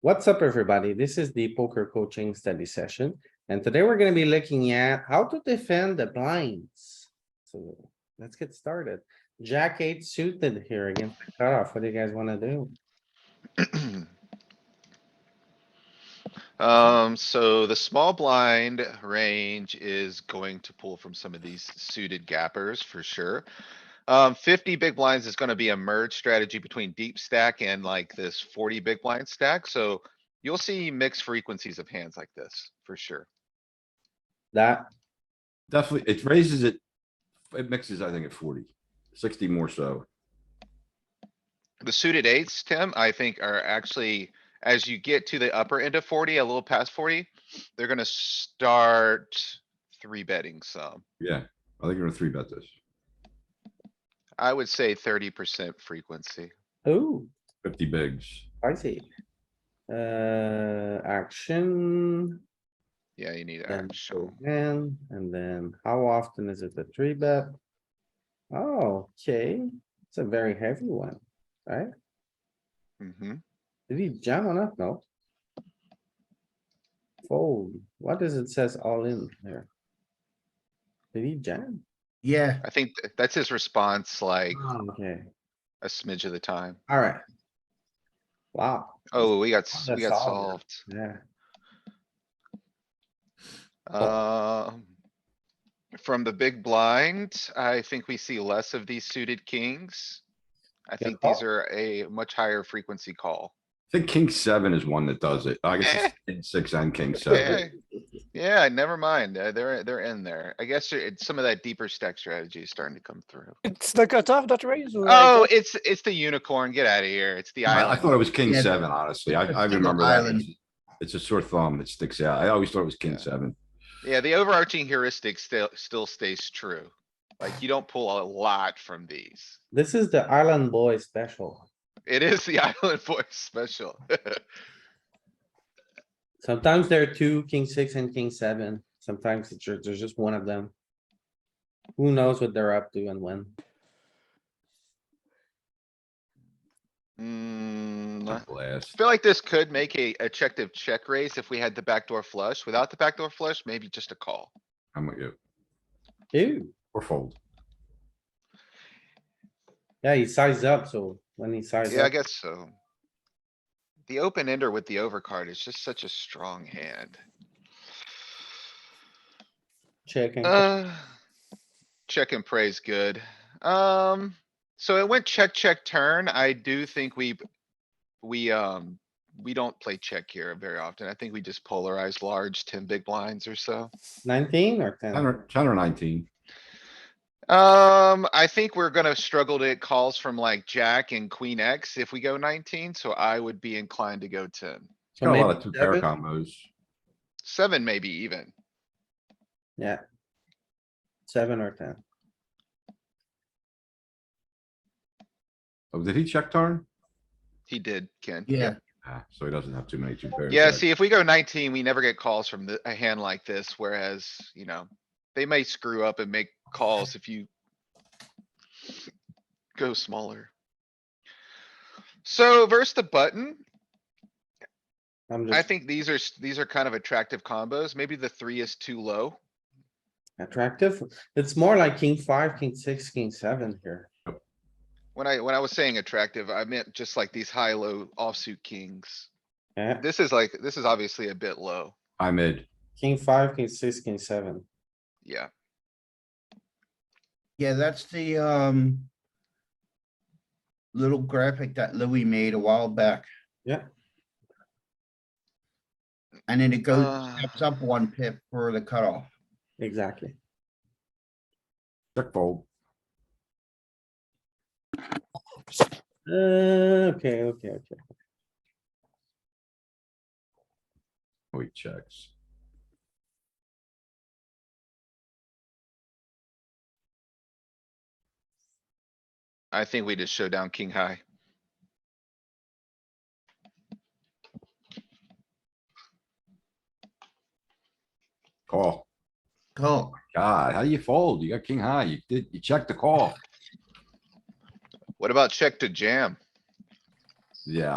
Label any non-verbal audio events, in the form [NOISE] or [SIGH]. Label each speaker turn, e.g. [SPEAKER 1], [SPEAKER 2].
[SPEAKER 1] What's up, everybody? This is the poker coaching study session, and today we're gonna be looking at how to defend the blinds. So let's get started. Jack eight suited here against the cutoff. What do you guys wanna do?
[SPEAKER 2] [CLEARS THROAT] Um, so the small blind range is going to pull from some of these suited gappers for sure. Um, fifty big blinds is gonna be a merge strategy between deep stack and like this forty big blind stack, so you'll see mixed frequencies of hands like this for sure.
[SPEAKER 1] That,
[SPEAKER 3] Definitely, it raises it, it mixes, I think, at 40, 60 more so.
[SPEAKER 2] The suited eights, Tim, I think are actually, as you get to the upper end of forty, a little past forty, they're gonna start three betting some.
[SPEAKER 3] Yeah, I think you're gonna three bet this.
[SPEAKER 2] I would say thirty percent frequency.
[SPEAKER 1] ooh,
[SPEAKER 3] Fifty bigs.
[SPEAKER 1] I see. Uh, action,
[SPEAKER 2] Yeah, you need
[SPEAKER 1] then
[SPEAKER 2] actual.
[SPEAKER 1] and, and then how often is it the three bet? Oh, okay, it's a very heavy one, right?
[SPEAKER 2] Mm-hmm.
[SPEAKER 1] Did he jam on that? No. Fold. What does it says all in there? Did he jam?
[SPEAKER 4] Yeah,
[SPEAKER 2] I think th- that's his response like
[SPEAKER 1] Uh. Okay,
[SPEAKER 2] a smidge of the time.
[SPEAKER 1] alright. Wow,
[SPEAKER 2] Oh, we got, s-
[SPEAKER 1] Oh,
[SPEAKER 2] we
[SPEAKER 1] that's
[SPEAKER 2] got
[SPEAKER 1] solid.
[SPEAKER 2] solved.
[SPEAKER 1] yeah,
[SPEAKER 2] Um. From the big blind, I think we see less of these suited kings. I
[SPEAKER 1] Good
[SPEAKER 2] think these
[SPEAKER 1] call.
[SPEAKER 2] are a much higher frequency call.
[SPEAKER 3] I think king seven is one that does it. I
[SPEAKER 2] [LAUGHS]
[SPEAKER 3] guess it's king six and king seven.
[SPEAKER 2] Yeah, yeah, never mind. uh, They're, they're in there. I guess it's some of that deeper stack strategy is starting to come through.
[SPEAKER 5] It's the cutoff that raise. or I
[SPEAKER 2] Oh,
[SPEAKER 5] don't-
[SPEAKER 2] it's, it's the unicorn. Get out of here. It's the
[SPEAKER 3] I, I
[SPEAKER 2] island.
[SPEAKER 3] thought it was king
[SPEAKER 4] Yeah.
[SPEAKER 3] seven, honestly. I, I
[SPEAKER 4] It's an
[SPEAKER 3] remember that.
[SPEAKER 4] island.
[SPEAKER 3] It's- It's a sore thumb that sticks out. I always thought it was king
[SPEAKER 2] Yeah.
[SPEAKER 3] seven.
[SPEAKER 2] Yeah, the overarching heuristic still, still stays true. Like, you don't pull a lot from these.
[SPEAKER 1] this is the Island Boy special.
[SPEAKER 2] It is the [LAUGHS] Island Boy special. [LAUGHS]
[SPEAKER 1] Sometimes there are two, king six and king seven. Sometimes it's ju- there's just one of them. Who knows what they're up to and when?
[SPEAKER 2] Mm, I
[SPEAKER 3] Blast.
[SPEAKER 2] feel like this could make a effective check raise if we had the backdoor flush. Without the backdoor flush, maybe just a call.
[SPEAKER 3] I'm with you.
[SPEAKER 1] Ew,
[SPEAKER 3] Or fold.
[SPEAKER 1] yeah, he sized up, so when he sized
[SPEAKER 2] Yeah, I
[SPEAKER 1] up,
[SPEAKER 2] guess so. The open ender with the overcard is just such a strong hand.
[SPEAKER 1] check and call.
[SPEAKER 2] Uh, check and praise good. Um, so it went check, check, turn. I do think we, we, um, we don't play check here very often. I think we just polarize large, ten big blinds or so.
[SPEAKER 1] nineteen or ten?
[SPEAKER 3] Ten or, ten or nineteen.
[SPEAKER 2] Um, I think we're gonna struggle to get calls from like jack and queen X if we go nineteen, so I would be inclined to go ten.
[SPEAKER 3] It's
[SPEAKER 1] So
[SPEAKER 3] Got a lot
[SPEAKER 1] maybe
[SPEAKER 3] of two pair
[SPEAKER 1] seven?
[SPEAKER 3] combos.
[SPEAKER 2] Seven maybe even.
[SPEAKER 1] Yeah. Seven or ten.
[SPEAKER 3] Oh, did he check turn?
[SPEAKER 2] He did, Ken.
[SPEAKER 4] yeah.
[SPEAKER 3] Ah, so he doesn't have too many two pairs.
[SPEAKER 2] Yeah,
[SPEAKER 3] left.
[SPEAKER 2] see, if we go nineteen, we never get calls from the, a hand like this, whereas, you know, they may screw up and make calls if you go smaller. So versus the button,
[SPEAKER 1] I'm
[SPEAKER 2] I
[SPEAKER 1] just
[SPEAKER 2] think these are, s- these are kind of attractive combos. Maybe the three is too low.
[SPEAKER 1] attractive. It's more like king five, king six, king seven here.
[SPEAKER 2] When I, when I was saying attractive, I meant just like these high-low offsuit kings.
[SPEAKER 1] Yeah,
[SPEAKER 2] This is like, this is obviously a bit low.
[SPEAKER 3] I'm mid.
[SPEAKER 1] king five, king six, king seven.
[SPEAKER 2] Yeah,
[SPEAKER 4] Yeah, that's the, um, little graphic that Louis made a while back.
[SPEAKER 1] Yeah.
[SPEAKER 4] And then it goes,
[SPEAKER 2] Uh.
[SPEAKER 4] steps up one pip for the cutoff.
[SPEAKER 1] Exactly.
[SPEAKER 3] Check fold.
[SPEAKER 1] Uh, okay, okay, okay.
[SPEAKER 3] Oh, he checks.
[SPEAKER 2] I think we just show down king high.
[SPEAKER 3] Call.
[SPEAKER 4] Call.
[SPEAKER 3] God, how do you fold? You got king high. You did, you checked the call.
[SPEAKER 2] What about check to jam?
[SPEAKER 3] Yeah,